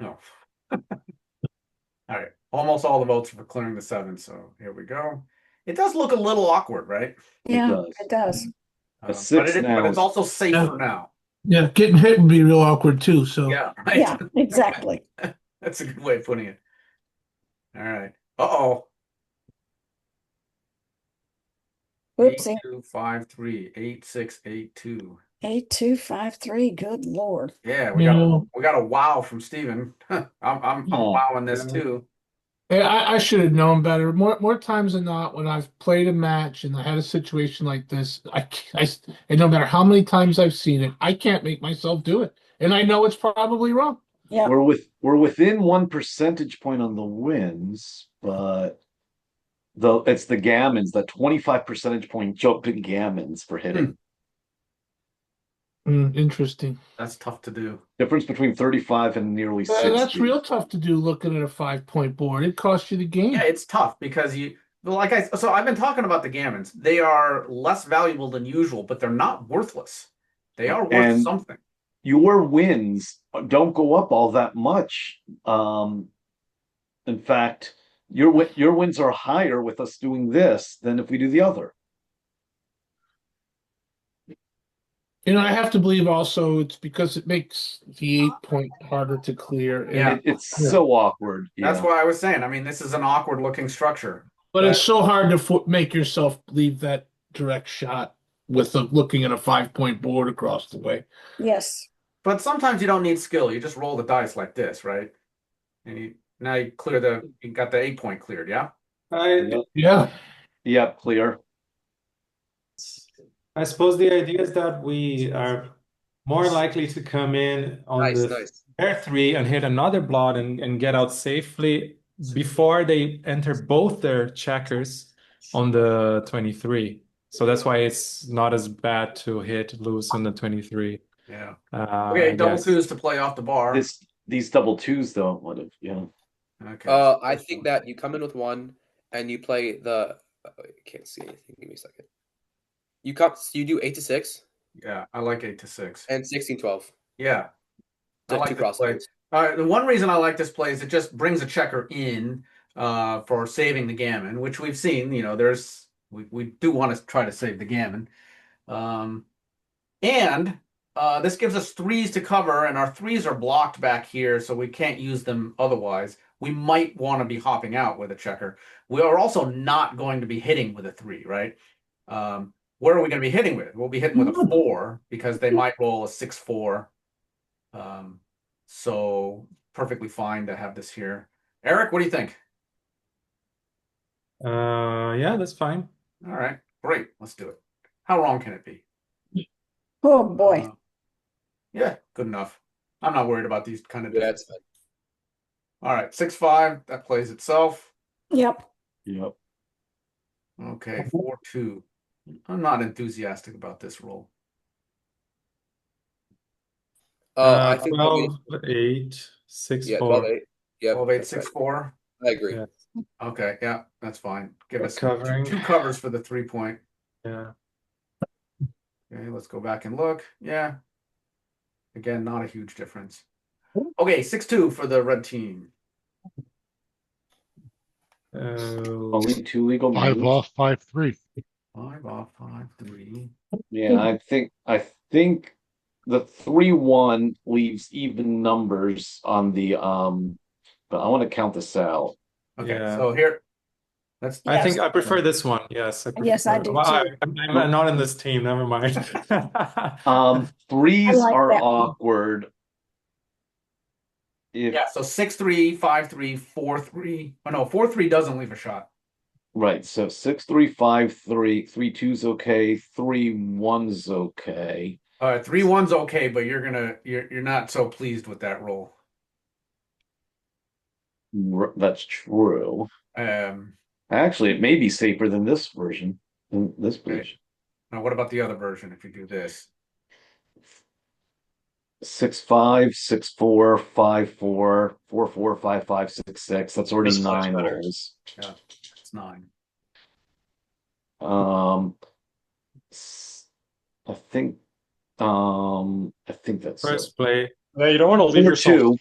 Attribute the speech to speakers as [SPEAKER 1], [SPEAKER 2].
[SPEAKER 1] No. All right, almost all the votes for clearing the seven, so here we go. It does look a little awkward, right?
[SPEAKER 2] Yeah,
[SPEAKER 3] does.
[SPEAKER 2] it does.
[SPEAKER 1] Um, but,
[SPEAKER 3] six
[SPEAKER 1] it,
[SPEAKER 3] now
[SPEAKER 1] but it's
[SPEAKER 3] is-
[SPEAKER 1] also safer now.
[SPEAKER 4] Yeah, getting hit would be real awkward too, so.
[SPEAKER 1] Yeah, right.
[SPEAKER 2] Yeah, exactly.
[SPEAKER 1] That's a good way of putting it. All right. Uh oh.
[SPEAKER 2] Oopsie.
[SPEAKER 1] Two, five, three, eight, six, eight, two.
[SPEAKER 2] Eight, two, five, three. Good lord.
[SPEAKER 1] Yeah, we
[SPEAKER 4] You
[SPEAKER 1] got a,
[SPEAKER 4] know-
[SPEAKER 1] we got a wow from Steven. I'm I'm I'm
[SPEAKER 3] Oh,
[SPEAKER 1] wowing this
[SPEAKER 4] yeah.
[SPEAKER 1] too.
[SPEAKER 4] Yeah, I, I should have known better. More more times than not, when I've played a match and I had a situation like this, I, c- I s- and no matter how many times I've seen it, I can't make myself do it, and I know it's probably wrong.
[SPEAKER 2] Yeah,
[SPEAKER 3] We're with we're within one percentage point on the wins, but the it's the gammons, the twenty five percentage point jump in gammons for hitting.
[SPEAKER 4] Hmm, interesting.
[SPEAKER 1] That's tough to do.
[SPEAKER 3] Difference between thirty five and nearly
[SPEAKER 4] Uh,
[SPEAKER 3] sixty.
[SPEAKER 4] that's real tough to do looking at a five point board. It costs you the game.
[SPEAKER 1] Yeah, it's tough because you well, like I so I've been talking about the gammons. They are less valuable than usual, but they're not worthless. They are worth
[SPEAKER 3] And-
[SPEAKER 1] something.
[SPEAKER 3] Your wins don't go up all that much. Um, in fact, your wi- your wins are higher with us doing this than if we do the other.
[SPEAKER 4] You know, I have to believe also it's because it makes the eight point harder to clear. and
[SPEAKER 1] Yeah.
[SPEAKER 3] It, it's
[SPEAKER 4] Yeah.
[SPEAKER 3] so awkward.
[SPEAKER 1] That's
[SPEAKER 3] yeah.
[SPEAKER 1] why I was saying. I mean, this is an awkward looking structure.
[SPEAKER 4] But it's so hard to fo- make yourself leave that direct shot with a, looking at a five point board across the way.
[SPEAKER 2] yes.
[SPEAKER 1] But sometimes you don't need skill. You just roll the dice like this, right? And you now you clear the you got the eight point cleared, yeah?
[SPEAKER 5] I
[SPEAKER 3] Yep,
[SPEAKER 4] Yeah,
[SPEAKER 3] Yep, clear.
[SPEAKER 5] I suppose the idea is that we are more likely to come in on
[SPEAKER 6] Nice,
[SPEAKER 5] the
[SPEAKER 6] nice.
[SPEAKER 5] pair three and hit another blot and, and get out safely before they enter both their checkers on the 23. So that's why it's not as bad to hit loose on the 23.
[SPEAKER 1] Yeah.
[SPEAKER 5] Uh,
[SPEAKER 1] Okay,
[SPEAKER 5] I
[SPEAKER 1] double
[SPEAKER 5] guess.
[SPEAKER 1] twos to play off the bar.
[SPEAKER 3] This these double twos though would have yeah.
[SPEAKER 1] Okay.
[SPEAKER 6] Uh, I think that you come in with one and you play the. Oh, I can't see anything. Give me a second. You come. You do eight to six
[SPEAKER 1] yeah, I like eight to six.
[SPEAKER 6] and sixteen twelve.
[SPEAKER 1] Yeah. I
[SPEAKER 6] The
[SPEAKER 1] like
[SPEAKER 6] two
[SPEAKER 1] this
[SPEAKER 6] cross
[SPEAKER 1] play.
[SPEAKER 6] lanes.
[SPEAKER 1] All right, the one reason I like this play is it just brings a checker in uh, for saving the gammon, which we've seen. You know, there's we, we do want to try to save the gammon, um, and uh, this gives us threes to cover, and our threes are blocked back here, so we can't use them otherwise. We might want to be hopping out with a checker. We are also not going to be hitting with a three, right? Um, where are we going to be hitting with? We'll be hitting with a four because they might roll a six four. Um, so perfectly fine to have this here. Eric, what do you think?
[SPEAKER 5] Uh, yeah, that's fine.
[SPEAKER 1] All right, great. Let's do it. How wrong can it be?
[SPEAKER 2] Oh, boy.
[SPEAKER 1] Uh, yeah, good enough. I'm not worried about these kind of.
[SPEAKER 6] Yeah, it's fine.
[SPEAKER 1] All right, six five. That plays itself.
[SPEAKER 2] Yep.
[SPEAKER 3] Yep.
[SPEAKER 1] Okay,
[SPEAKER 5] Uh-huh.
[SPEAKER 1] four two. I'm not enthusiastic about this roll.
[SPEAKER 6] Uh, I think we'll be-
[SPEAKER 5] 12, 8, 6,
[SPEAKER 6] yeah,
[SPEAKER 5] 4.
[SPEAKER 6] twelve eight. Yeah,
[SPEAKER 1] Twelve eight six four.
[SPEAKER 6] I agree.
[SPEAKER 5] Yeah.
[SPEAKER 1] Okay, yeah, that's fine. Give
[SPEAKER 5] We're
[SPEAKER 1] us two-
[SPEAKER 5] covering.
[SPEAKER 1] two covers for the three point.
[SPEAKER 5] Yeah.
[SPEAKER 1] Okay, let's go back and look. Yeah. Again, not a huge difference. Okay, six two for the red team.
[SPEAKER 5] Uh,
[SPEAKER 3] Only two legal
[SPEAKER 7] Five
[SPEAKER 3] moves.
[SPEAKER 7] off, five three.
[SPEAKER 1] Five off, five three.
[SPEAKER 3] Yeah, I think I think the three one leaves even numbers on the um but I want to count this out.
[SPEAKER 1] Okay,
[SPEAKER 5] Yeah.
[SPEAKER 1] so here, that's
[SPEAKER 5] I think
[SPEAKER 2] Yes.
[SPEAKER 5] I prefer this one. Yes, I
[SPEAKER 2] Yes, I
[SPEAKER 5] prefer-
[SPEAKER 2] do
[SPEAKER 5] Well, I,
[SPEAKER 2] too.
[SPEAKER 5] I'm, I'm not in this team. Never mind.
[SPEAKER 3] Um threes
[SPEAKER 2] like
[SPEAKER 3] are
[SPEAKER 2] that.
[SPEAKER 3] awkward. If
[SPEAKER 1] yeah. So six three, five three, four three. Oh no, four three doesn't leave a shot.
[SPEAKER 3] right, so six three five three three two's okay, three one's okay.
[SPEAKER 1] All right, Uh, three one's okay, but you're gonna you're you're not so pleased with that roll.
[SPEAKER 3] R- That's true.
[SPEAKER 1] Um,
[SPEAKER 3] Actually, it may be safer than this version, than this
[SPEAKER 1] Right.
[SPEAKER 3] version.
[SPEAKER 1] now what about the other version? If you do this,
[SPEAKER 3] Six five, six four, five four, four four, five five, six six. That's already
[SPEAKER 6] This one's
[SPEAKER 3] nine
[SPEAKER 6] better.
[SPEAKER 3] rolls.
[SPEAKER 1] it's nine.
[SPEAKER 3] Um, s- I think, um, I think that's it.
[SPEAKER 5] First play.
[SPEAKER 8] Yeah, you don't want to leave
[SPEAKER 3] Number
[SPEAKER 8] yourself
[SPEAKER 3] two.